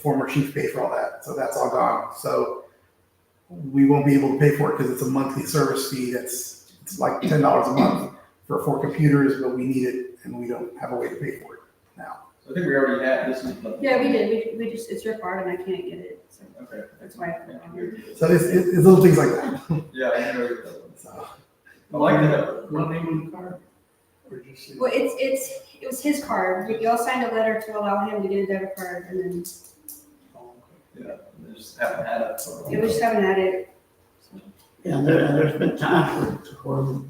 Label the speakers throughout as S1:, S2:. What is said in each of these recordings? S1: former chief pay for all that. So that's all gone. So we won't be able to pay for it because it's a monthly service fee that's it's like ten dollars a month for four computers, but we need it and we don't have a way to pay for it.
S2: I think we already had, this is. the-
S3: Yeah, we did, we, we just, it's your card and I can't get it, so
S2: Okay.
S3: that's why I put it on here.
S1: So it's, it's, it's little things like that.
S2: Yeah, I know. you're-
S1: So
S2: I like that.
S4: What name on the card?
S1: we're just
S3: Well, it's, it's, it was his card, We y'all signed a letter to allow him to get a debit card, and then
S2: Yeah, I just haven't had it. for a
S3: yeah, we
S2: while.
S3: just haven't had it.
S4: Yeah, there, and there's been times where, where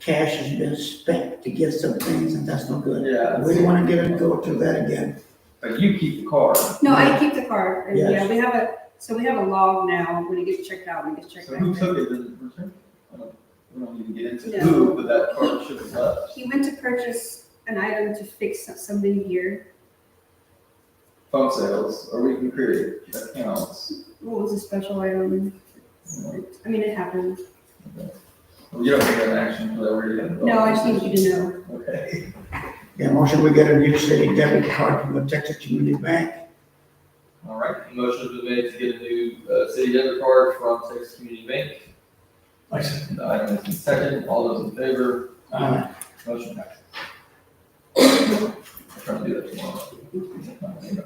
S4: cash has been spent to get some things, and that's no good.
S2: Yeah,
S4: We don't wanna get it, go through that again.
S2: but you keep the card.
S3: No, I keep the card, and yeah,
S4: Yes.
S3: we have a, so we have a log now, when it gets checked out, when it gets checked
S2: So who
S3: back
S2: took
S3: in.
S2: it, does it return? I don't- We don't even get into
S3: No.
S2: who, but that card should have left.
S3: He went to purchase an item to fix something here,
S2: Phone sales, or we can create accounts.
S3: what was a special item?
S2: you know.
S3: I mean, it happened,
S2: Well, You don't take an action for that, we're gonna.
S3: no, I just need you to know.
S2: Okay,
S4: Yeah, motion, we get a new city debit card from the Texas Community Bank.
S5: All right, motion has been made to get a new uh, city debit card from Texas Community Bank. The item is in second, all those in favor,
S4: Uh,
S5: motion passes. I'll try to do that tomorrow.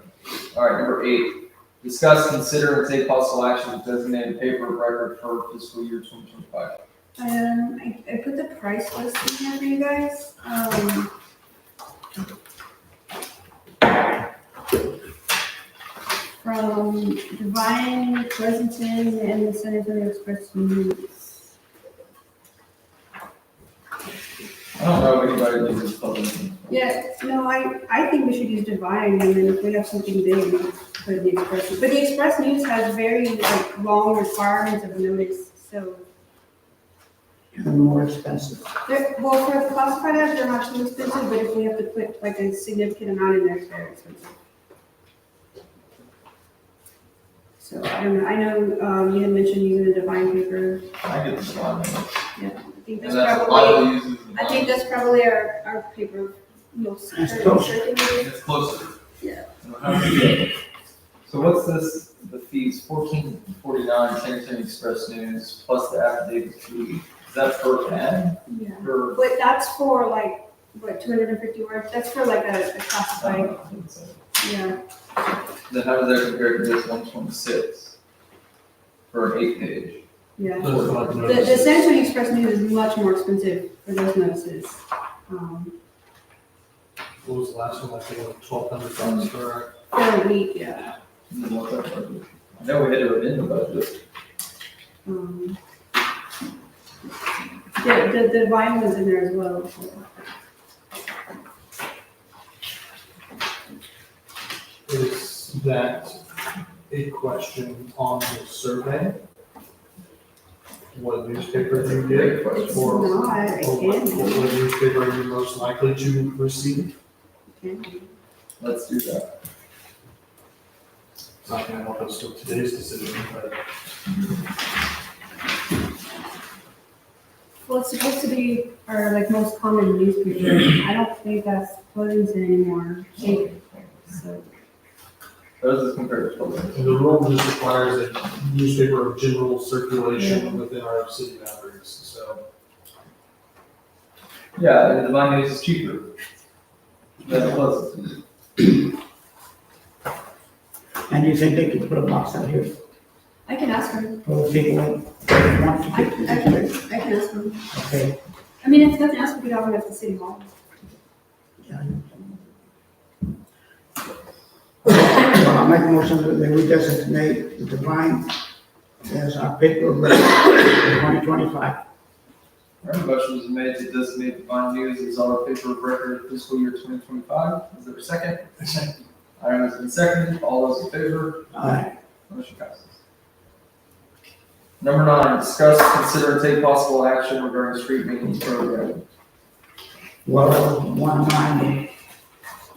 S5: All right, number eight, discuss, consider, and take possible action to designate a paper of record for fiscal year twenty twenty-five.
S3: Um, I, I put the price list in here for you guys, um. From Divine, Pleasanton, and the San Antonio Express News.
S2: I don't know if anybody lives in public.
S3: Yeah, no, I, I think we should use Divine, and then if we have something big, we put the Express, but the Express News has very, like, long requirements of notice, so.
S4: and more expensive.
S3: They're, well, for the classified ads, they're not too expensive, but if we have to put like a significant amount in there, it's very expensive. So I don't know, I know, um, you had mentioned using a divine paper,
S2: I get the line.
S3: yeah, I
S5: And
S3: think that's
S5: that's a lot
S3: probably,
S5: of uses. in
S3: I think
S5: mine.
S3: that's probably our, our paper most.
S4: That's
S3: current
S4: close.
S3: circulating.
S5: It's closer.
S3: Yeah.
S5: So how do you- so what's this, the fees, fourteen forty-nine, San Antonio Express News, plus the affidavit fee, is that per ad, uh,
S3: Yeah,
S5: per?
S3: but that's for like, what, two hundred and fifty words, that's for like a, a
S5: I don't
S3: classified,
S5: know, I think so.
S3: yeah.
S5: Then how does that compare to this one twenty-six? For an eight page?
S3: Yeah,
S6: Those are like
S3: the, the
S6: notices.
S3: San Antonio Express News is much more expensive for those notices, um.
S6: What was the last one, like, they were twelve hundred
S3: Mm-hmm.
S6: dollars for,
S3: For a week, yeah.
S5: I don't know what that was. I know we had it in the budget,
S3: Um, Yeah, the, the wine was in there as well. so.
S6: is that a question on the survey? What newspaper you
S5: great
S6: get,
S3: It's
S5: question.
S6: Or-
S3: not, it
S6: or what,
S3: can be,
S6: what newspaper are you most likely to receive?
S3: it can be.
S5: let's do that.
S6: It's not gonna help us with today's decision, but
S3: Well, it's supposed to be our like most common newspaper. I don't think that's Pleasanton anymore. Like, so,
S5: How does this compare to public?
S6: the rule just requires a newspaper of general circulation within our city boundaries, so.
S5: Yeah, and the Divine News is cheaper. That's plus,
S4: And you think they could put a box out here
S3: I can ask her,
S4: for people that want to
S3: I,
S4: get
S3: I
S4: this?
S3: can,
S4: thing?
S3: I can ask her.
S4: Okay.
S3: I mean, if nothing else, we could have it at the city hall.
S4: Yeah. Well, I make a motion that we designate the divine as our paper of record for twenty twenty-five.
S5: alright, motion was made to designate Divine News as our paper of record fiscal year twenty twenty-five, is there a second? Item has been seconded, all those in favor?
S4: Aye.
S5: Motion passes. Number nine, discuss, consider, and take possible action regarding street maintenance program.
S4: Well, that was one of mine,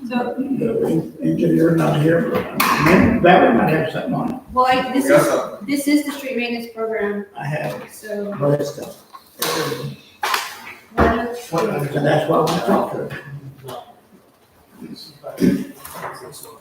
S3: So,
S4: the engineer not here, but uh, maybe Barry might have something on it.
S3: well, I,
S5: We
S3: this
S5: got
S3: is,
S5: something.
S3: this is the street maintenance program,
S4: I have,
S3: so.
S4: but it's uh, the,
S3: why not-
S4: so that's why we talked to her.
S6: Well, it's about- it's also-